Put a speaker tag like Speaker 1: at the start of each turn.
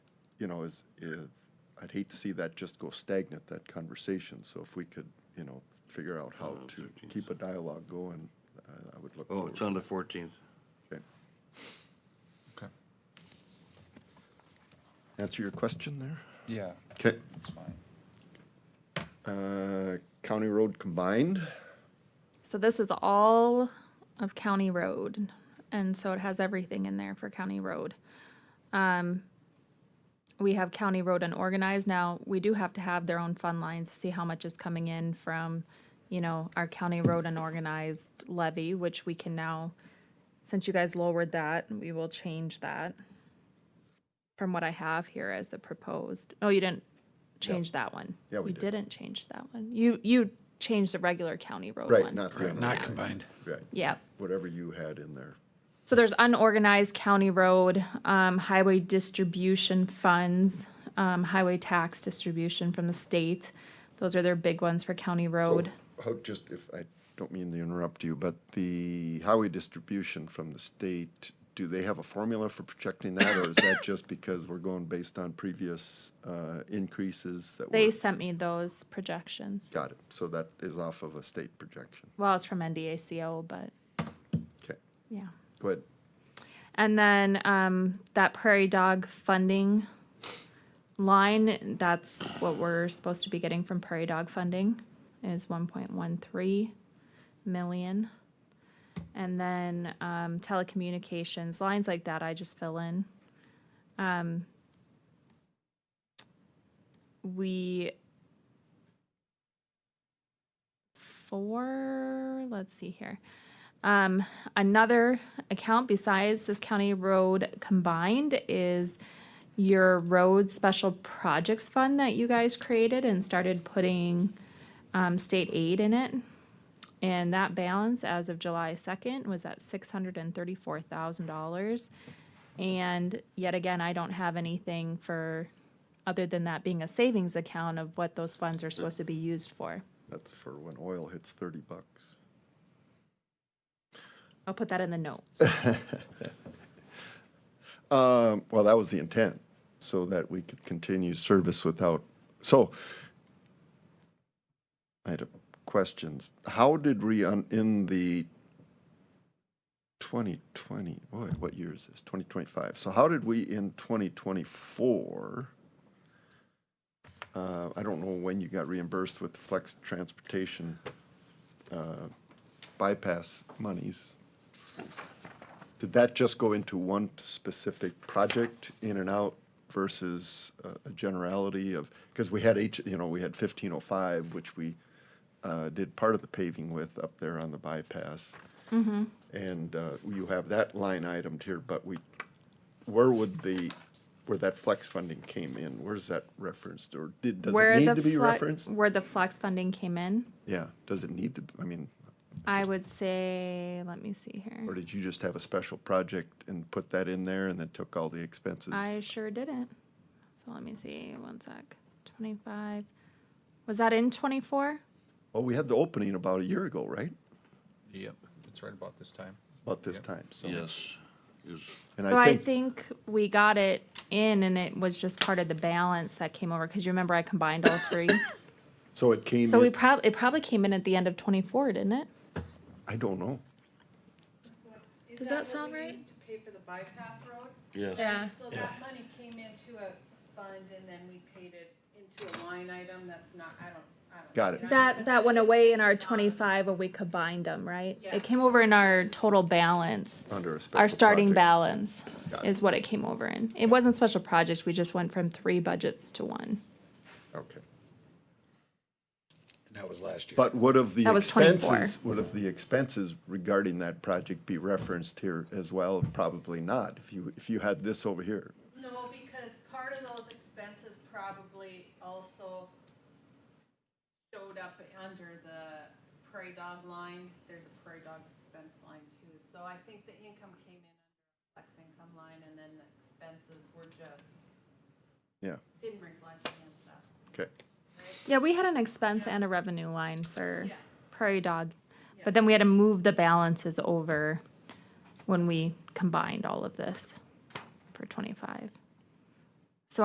Speaker 1: you know, is, is, I'd hate to see that just go stagnant, that conversation. So if we could, you know, figure out how
Speaker 2: Around
Speaker 1: to
Speaker 2: 13th.
Speaker 1: keep a dialogue going, I, I would look
Speaker 2: Oh,
Speaker 1: forward.
Speaker 2: it's on the fourteenth.
Speaker 1: Okay.
Speaker 3: Okay.
Speaker 1: Answer your question there?
Speaker 3: Yeah,
Speaker 1: Okay.
Speaker 3: that's fine.
Speaker 1: Uh, county road combined,
Speaker 4: So this is all of county road, and so it has everything in there for county road. Um, we have county road unorganized now. We do have to have their own fund lines to see how much is coming in from, you know, our county road unorganized levy, which we can now, since you guys lowered that, we will change that from what I have here as the proposed. Oh, you didn't change that one.
Speaker 1: Yeah, we
Speaker 4: You
Speaker 1: did.
Speaker 4: didn't change that one. You, you changed the regular county road one.
Speaker 1: right, not the,
Speaker 3: Not
Speaker 4: Yeah.
Speaker 3: combined.
Speaker 1: right,
Speaker 4: Yep.
Speaker 1: whatever you had in there.
Speaker 4: So there's unorganized county road, um, highway distribution funds, um, highway tax distribution from the state. Those are their big ones for county
Speaker 1: So,
Speaker 4: road.
Speaker 1: How, just if, I don't mean to interrupt you, but the highway distribution from the state, do they have a formula for projecting that? Or is that just because we're going based on previous uh, increases that
Speaker 4: They
Speaker 1: were?
Speaker 4: sent me those projections.
Speaker 1: Got it. So that is off of a state projection.
Speaker 4: Well, it's from NDACO, but
Speaker 1: Okay,
Speaker 4: yeah.
Speaker 1: go ahead.
Speaker 4: And then, um, that prairie dog funding line, that's what we're supposed to be getting from prairie dog funding is one point one three million. And then, um, telecommunications, lines like that, I just fill in. Um, we four, let's see here. Um, another account besides this county road combined is your road special projects fund that you guys created and started putting um, state aid in it. And that balance as of July second was at six hundred and thirty-four thousand dollars. And yet again, I don't have anything for, other than that being a savings account of what those funds are supposed to be used for.
Speaker 1: That's for when oil hits thirty bucks.
Speaker 4: I'll put that in the notes.
Speaker 1: Um, well, that was the intent, so that we could continue service without, so. I had a- questions. How did we, un- in the twenty twenty, boy, what year is this? Twenty twenty-five. So how did we in twenty twenty-four? Uh, I don't know when you got reimbursed with the flex transportation, uh, bypass monies. Did that just go into one specific project, in and out, versus uh, a generality of, because we had H, you know, we had fifteen oh five, which we uh, did part of the paving with up there on the bypass.
Speaker 4: Mm-hmm.
Speaker 1: And uh, you have that line itemed here, but we, where would the, where that flex funding came in, where's that referenced, or did, does
Speaker 4: Where
Speaker 1: it need
Speaker 4: the
Speaker 1: to be
Speaker 4: fle-
Speaker 1: referenced?
Speaker 4: Where the flex funding came in,
Speaker 1: Yeah, does it need to, I mean,
Speaker 4: I would say, let me see
Speaker 1: or
Speaker 4: here.
Speaker 1: did you just have a special project and put that in there and then took all the expenses?
Speaker 4: I sure didn't. So let me see, one sec. Twenty-five. Was that in twenty-four?
Speaker 1: Well, we had the opening about a year ago, right?
Speaker 3: Yep, it's right about this time.
Speaker 1: About this
Speaker 3: Yep.
Speaker 1: time, so.
Speaker 2: Yes, is,
Speaker 1: And
Speaker 4: So I
Speaker 1: I think,
Speaker 4: think we got it in and it was just part of the balance that came over, cause you remember I combined all three?
Speaker 1: so it came
Speaker 4: So we
Speaker 1: in,
Speaker 4: prob, it probably came in at the end of twenty-four, didn't it?
Speaker 1: I don't know.
Speaker 4: Does that sound right?
Speaker 5: Is that what we used to pay for the bypass road?
Speaker 2: yes.
Speaker 5: So that money came into a s- fund and then we paid it into a line item that's not, I don't, I don't.
Speaker 1: Got
Speaker 5: I
Speaker 1: it.
Speaker 5: mean, I-
Speaker 4: That, that went away in our twenty-five when we combined them, right?
Speaker 5: Yeah.
Speaker 4: It came over in our total balance.
Speaker 1: Under a
Speaker 4: our
Speaker 1: special
Speaker 4: starting
Speaker 1: project.
Speaker 4: balance
Speaker 1: Got it.
Speaker 4: is what it came over in. It wasn't special projects, we just went from three budgets to one.
Speaker 1: Okay.
Speaker 3: And that was last year.
Speaker 1: But would of the
Speaker 4: That was 24.
Speaker 1: expenses, would of the expenses regarding that project be referenced here as well? Probably not, if you, if you had this over here.
Speaker 5: No, because part of those expenses probably also showed up under the prairie dog line. There's a prairie dog expense line too. So I think the income came in under flex income line and then the expenses were just,
Speaker 1: Yeah,
Speaker 5: didn't reflect against that.
Speaker 1: okay.
Speaker 4: Yeah, we had an expense and a revenue line for
Speaker 5: Yeah.
Speaker 4: Prairie Dog, but then we had to move the balances over when we combined all of this for twenty-five.